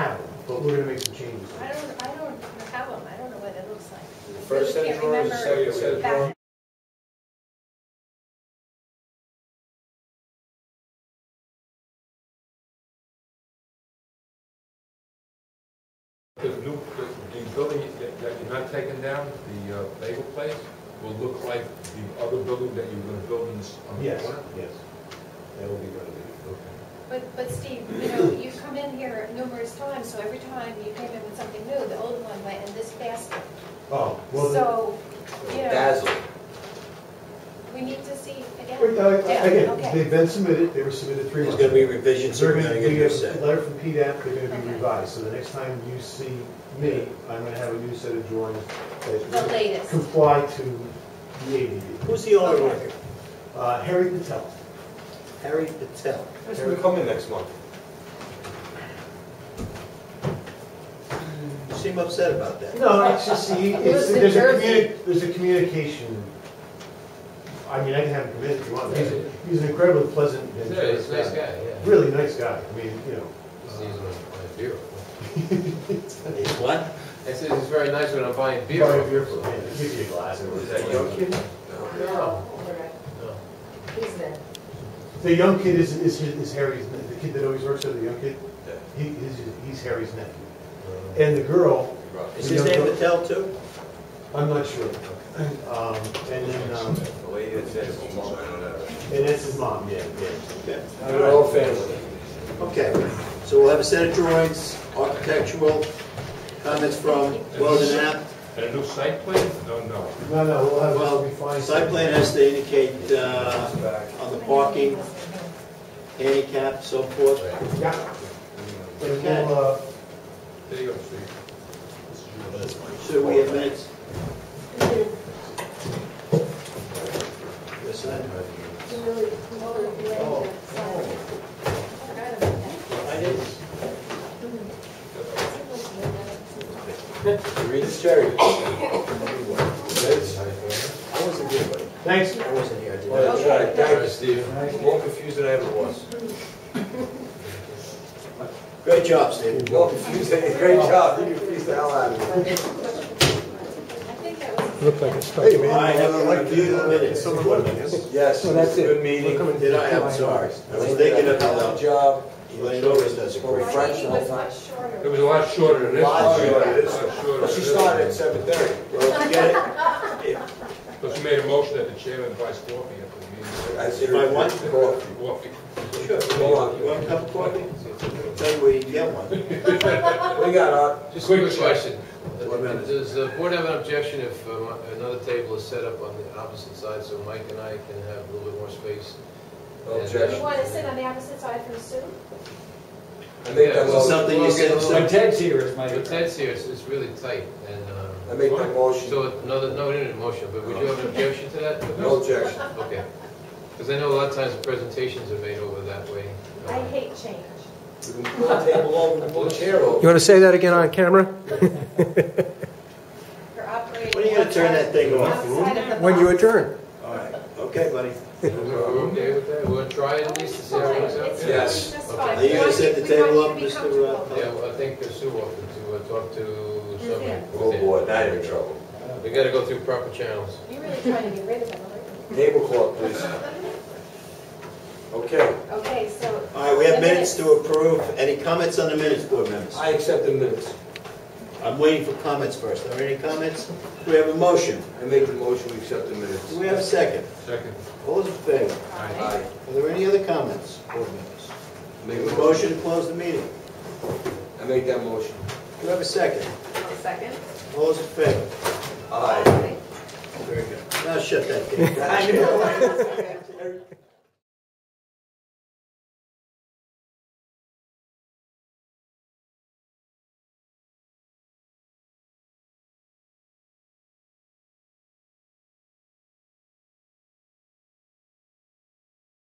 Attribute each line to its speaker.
Speaker 1: but we're gonna make some changes.
Speaker 2: I don't, I don't have them, I don't know what it looks like.
Speaker 3: The first
Speaker 2: I
Speaker 3: set of
Speaker 2: can't
Speaker 3: drawers, the second
Speaker 2: remember
Speaker 3: set of
Speaker 2: back-
Speaker 3: drawers.
Speaker 4: The new, the- the building that that you're not taking down, the uh, bagel place, will look like the other building that you were gonna build in this, on the
Speaker 1: Yes,
Speaker 4: corner?
Speaker 1: yes. That will be renovated.
Speaker 4: Okay.
Speaker 2: But, but Steve, you know, you've come in here numerous times, so every time you came in with something new, the old one went in this basket.
Speaker 1: Oh, well, the-
Speaker 2: So, you know,
Speaker 3: Dazzle.
Speaker 2: we need to see
Speaker 1: wait,
Speaker 2: again.
Speaker 1: uh,
Speaker 2: Yeah,
Speaker 1: again,
Speaker 2: okay.
Speaker 1: they've been submitted, they were submitted three
Speaker 3: There's
Speaker 1: months.
Speaker 3: gonna be
Speaker 1: ago.
Speaker 3: revisions, so
Speaker 1: They're
Speaker 3: we're
Speaker 1: gonna,
Speaker 3: gonna
Speaker 1: we
Speaker 3: get a new
Speaker 1: get
Speaker 3: set.
Speaker 1: a letter from PDAP, they're gonna be
Speaker 2: Okay.
Speaker 1: revised, so the next time you see me, I'm gonna have a new set of drawings
Speaker 2: The
Speaker 1: that
Speaker 2: latest.
Speaker 1: comply to the ADU.
Speaker 3: Who's the owner
Speaker 2: Okay.
Speaker 3: of it?
Speaker 1: Uh, Harry Patel,
Speaker 3: Harry Patel.
Speaker 5: That's gonna come in next month.
Speaker 3: You seem upset about that.
Speaker 1: No, it's just, the- it's,
Speaker 6: Lives in
Speaker 1: there's a
Speaker 6: Jersey.
Speaker 1: communi, there's a communication, I mean, I can have him come in if you want. He's a- He's an incredibly pleasant and generous guy.
Speaker 5: yeah.
Speaker 1: Really nice guy, I mean, you know.
Speaker 5: He's easy when I'm buying beer.
Speaker 3: It's what?
Speaker 5: I said, he's very nice when I'm buying beer.
Speaker 1: Buy a beer for him, give you a glass. or
Speaker 5: Is that
Speaker 1: whatever.
Speaker 5: your kid?
Speaker 6: No,
Speaker 5: No.
Speaker 6: he's there.
Speaker 1: The young kid is, is, his- is Harry's, ne- the kid that always works there, the young kid,
Speaker 3: Yeah.
Speaker 1: he, he's, he's Harry's nephew. And the girl,
Speaker 3: Is his name Patel too?
Speaker 1: I'm not sure. Um, and then, um,
Speaker 7: The lady that said, "Mom, I don't know."
Speaker 1: and that's his mom, yeah, yeah.
Speaker 3: Okay.
Speaker 1: They're all
Speaker 3: family. Okay, so we'll have a set of drawings, architectural, comments from Weldon App.
Speaker 4: And a new site plan? No, no.
Speaker 1: No, no, we'll have, we'll
Speaker 3: Well,
Speaker 1: refine.
Speaker 3: site plan has to indicate, uh, on the parking, handicap, so forth.
Speaker 1: Yeah. And we'll, uh,
Speaker 4: There you go, Steve. This is yours.
Speaker 3: So we have minutes? Yes, I know.
Speaker 2: Oh.
Speaker 3: I didn't.
Speaker 5: Read the cherry.
Speaker 3: I wasn't here, buddy.
Speaker 1: thanks.
Speaker 3: I wasn't here, I didn't.
Speaker 5: Well, try it. Thank you, Steve. More confused than I ever was.
Speaker 3: Great job, Steve.
Speaker 7: More confused than- great job, you confused the hell out of me.
Speaker 2: I think that was.
Speaker 7: Hey,
Speaker 3: All right, have a review of the minutes.
Speaker 7: Yes, it was a good meeting.
Speaker 3: Did I? I'm sorry. I was thinking of
Speaker 7: Good
Speaker 3: how,
Speaker 7: job.
Speaker 3: Elaine always does a great
Speaker 2: My
Speaker 3: job.
Speaker 7: French
Speaker 2: meeting
Speaker 7: all
Speaker 2: was
Speaker 7: time.
Speaker 2: much shorter.
Speaker 4: It was a lot shorter than this.
Speaker 7: Lot
Speaker 4: one.
Speaker 7: shorter.
Speaker 4: Yeah, it's a lot shorter
Speaker 7: Well,
Speaker 4: than
Speaker 7: She
Speaker 4: this
Speaker 7: started
Speaker 4: one.
Speaker 7: at seven thirty.
Speaker 3: Well, if you get it,
Speaker 4: But she made a motion that the chairman buy coffee after the meeting.
Speaker 3: If I want-
Speaker 4: Coffee.
Speaker 7: Hold on.
Speaker 3: you want a cup of coffee? I'll Tell you where you can get one.
Speaker 7: What do you got, Art?
Speaker 8: Just a
Speaker 4: Quick
Speaker 8: quick
Speaker 4: question.
Speaker 8: question.
Speaker 3: One minute.
Speaker 8: Does the board have an objection if um, another table is set up on the opposite side so Mike and I can have a little bit more space?
Speaker 7: No
Speaker 2: You
Speaker 7: objection.
Speaker 2: want to sit on the opposite side from Sue?
Speaker 7: I make that
Speaker 8: Yeah,
Speaker 3: Is it
Speaker 7: motion,
Speaker 3: something you said,
Speaker 8: When
Speaker 3: so-
Speaker 8: Ted's here, it's my. When Ted's here, it's it's really tight and,
Speaker 7: I
Speaker 8: um,
Speaker 7: make that motion,
Speaker 8: so another, no, no, no, motion, but would you have an objection to that?
Speaker 7: no objection.
Speaker 8: Okay. Because I know a lot of times the presentations are made over that way.
Speaker 2: I hate change.
Speaker 7: We can pull the table over, pull the chair
Speaker 9: You
Speaker 7: over.
Speaker 9: want to say that again on camera?
Speaker 2: You're operating.
Speaker 3: When are you gonna turn that thing off?
Speaker 2: Outside of the
Speaker 9: When you
Speaker 2: box.
Speaker 9: adjourn?
Speaker 3: All right, okay, buddy.
Speaker 8: Are we okay with that? We'll try it at least to see how it
Speaker 2: Fine,
Speaker 8: works out.
Speaker 2: it's
Speaker 7: Yes.
Speaker 2: really just fine.
Speaker 3: Are you gonna set
Speaker 2: We
Speaker 3: the
Speaker 2: want
Speaker 3: table
Speaker 2: you
Speaker 3: up, uh,
Speaker 2: to be
Speaker 3: Mr.
Speaker 2: comfortable.
Speaker 3: Roth?
Speaker 8: Yeah, well, I think Sue offered to uh, talk to someone.
Speaker 7: Oh boy, now you're in trouble.
Speaker 8: We gotta go through proper channels.
Speaker 2: You're really trying to get rid of them, aren't
Speaker 7: Tablecloth, please. Okay,
Speaker 2: you? Okay, so.
Speaker 3: All right, we have minutes to approve. Any comments on the minutes, board members?
Speaker 7: I accept the minutes.
Speaker 3: I'm waiting for comments first. Are there any comments? We have a motion.
Speaker 7: I make the motion, we accept the minutes.
Speaker 3: Do we have a second?
Speaker 4: Second.
Speaker 3: All those in favor?
Speaker 7: Aye.
Speaker 3: Are there any other comments, board members? We
Speaker 7: Make
Speaker 3: have
Speaker 7: a
Speaker 3: a
Speaker 7: motion,
Speaker 3: motion to close the meeting.
Speaker 7: I make that motion.
Speaker 3: Do we have a second?
Speaker 6: Second?
Speaker 3: All those in favor?
Speaker 7: Aye.
Speaker 3: Very good. Now shut that thing. down.